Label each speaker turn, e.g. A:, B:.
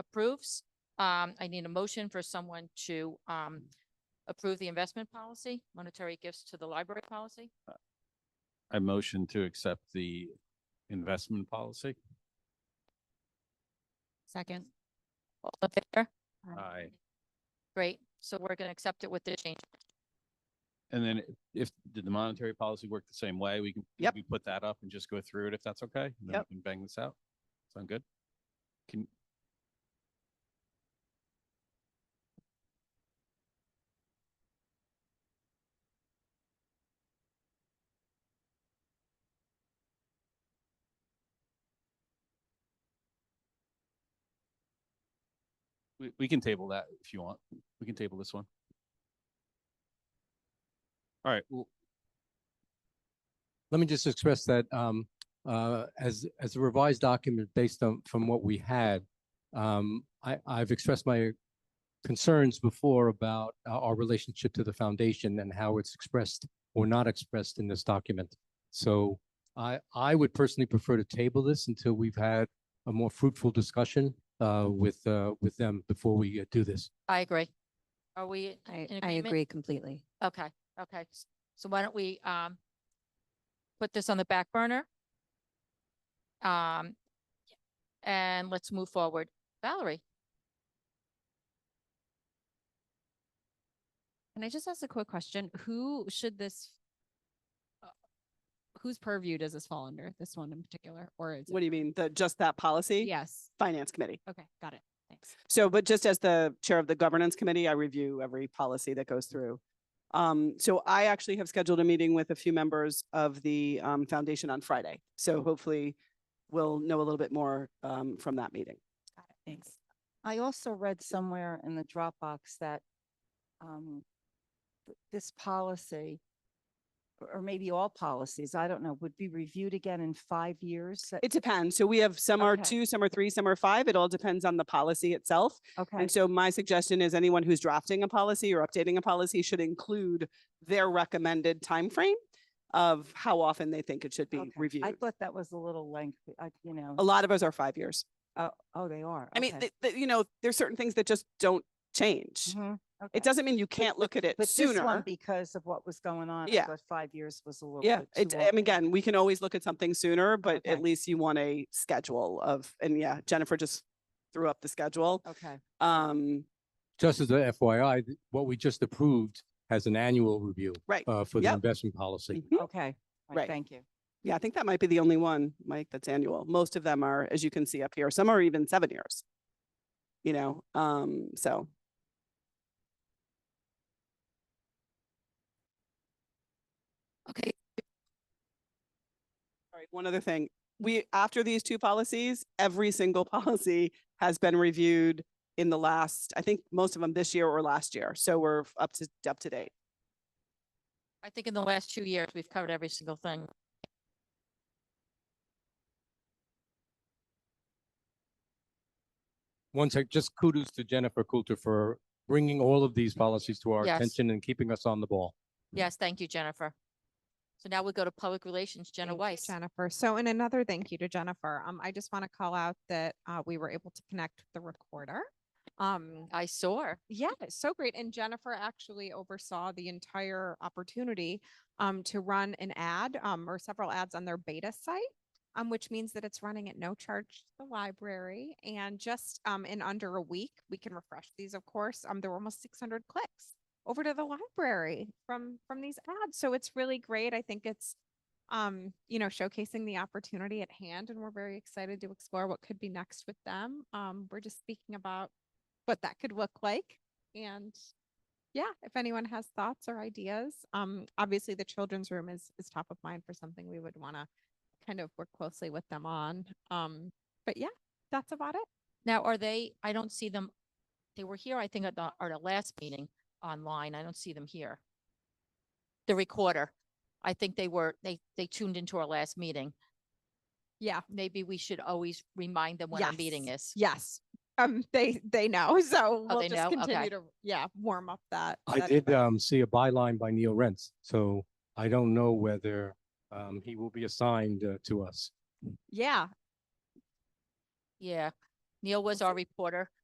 A: approves. Um, I need a motion for someone to, um, approve the investment policy, monetary gifts to the library policy.
B: I motion to accept the investment policy.
A: Second. All in favor?
B: Aye.
A: Great. So we're gonna accept it with the change.
B: And then if- if, did the monetary policy work the same way? We can,
C: Yep.
B: we put that up and just go through it if that's okay? and then we
C: Yep.
B: can Bang this out. Sound good? Can, we, we can table that if you want. We can table this one. All right, well,
D: Let me just express that um, uh, as, as a revised document based on, from what we had, um, I, I've expressed my concerns before about our our relationship to the foundation and how it's expressed or not expressed in this document. So I, I would personally prefer to table this until we've had a more fruitful discussion uh, with, uh, with them before we uh, do this.
A: I agree. Are we
E: I,
A: in
E: I
A: agreement?
E: agree completely.
A: Okay, okay. S- So why don't we, um, put this on the back burner? Um, and let's move forward. Valerie?
E: Can I just ask a quick question? Who should this? uh, Whose purview does this fall under? This one in particular, or is it?
C: What do you mean? The, just that policy?
E: Yes.
C: Finance committee.
E: Okay, got it. Thanks.
C: So, but just as the chair of the governance committee, I review every policy that goes through. Um, so I actually have scheduled a meeting with a few members of the, um, foundation on Friday. So hopefully we'll know a little bit more, um, from that meeting.
E: Got it. Thanks.
F: I also read somewhere in the Dropbox that um, th- this policy, or or maybe all policies, I don't know, would be reviewed again in five years? That-
C: It depends. So we have, some are
F: Okay.
C: two, some are three, some are five. It all depends on the policy itself.
F: Okay,
C: And so my suggestion is anyone who's drafting a policy or updating a policy should include their recommended timeframe of how often they think it should be
F: okay.
C: reviewed.
F: I thought that was a little lengthy, I, you know,
C: A lot of us are five years.
F: oh, oh, they are.
C: I mean,
F: okay.
C: th- th- you know, there's certain things that just don't change.
F: Mhm, okay.
C: It doesn't mean you can't look at it
F: But this one,
C: sooner.
F: because of what was going on, I
C: Yeah.
F: thought five years was a little
C: Yeah,
F: bit too
C: it, I
F: long.
C: mean, again, we can always look at something sooner, but at
F: Okay.
C: least you want a schedule of, and yeah, Jennifer just threw up the schedule.
F: Okay,
C: Um,
D: Just as a FYI, th- what we just approved has an annual review
C: right.
D: uh, for the
C: Yep.
D: investment policy.
C: Mhm.
F: okay,
C: Right.
F: all right, thank you.
C: Yeah, I think that might be the only one, Mike, that's annual. Most of them are, as you can see up here, some are even seven years. You know, um, so.
A: Okay.
C: All right, one other thing. We, after these two policies, every single policy has been reviewed in the last, I think most of them this year or last year. So we're f- up to, up to date.
A: I think in the last two years, we've covered every single thing.
D: One sec, just kudos to Jennifer Coulter for bringing all of these policies to our
A: Yes.
D: attention and keeping us on the ball.
A: Yes, thank you, Jennifer. So now we go to public relations, Jenna
G: Thank you,
A: Weiss.
G: Jennifer. So, and another thank you to Jennifer. Um, I just want to call out that uh, we were able to connect with the recorder. Um,
A: I saw her.
G: yeah, so great. And Jennifer actually oversaw the entire opportunity um, to run an ad um, or several ads on their beta site. Um, which means that it's running at no charge to the library and just um, in under a week we can refresh these of course um, there were almost 600 clicks over to the library from from these ads so it's really great i think it's um, you know, showcasing the opportunity at hand, and we're very excited to explore what could be next with them. Um, we're just speaking about what that could look like, and yeah, if anyone has thoughts or ideas, um, obviously the children's room is is top of mind for something we would want to kind of work closely with them on. Um, but yeah, that's about it.
A: Now, are they, I don't see them, they were here, I think, at the, at the last meeting online. I don't see them here. The recorder. I think they were, they, they tuned into our last meeting.
G: Yeah,
A: Maybe we should always remind them when our meeting is.
G: yes. Um, they they know, so
A: Oh,
G: we'll
A: they
G: just
A: know?
G: continue
A: Okay.
G: to yeah warm up that.
D: I
G: that
D: did
G: event.
D: um, see a byline by Neil Rentz, so I don't know whether um, he will be assigned uh, to us.
G: yeah,
A: Yeah. Neil was our reporter.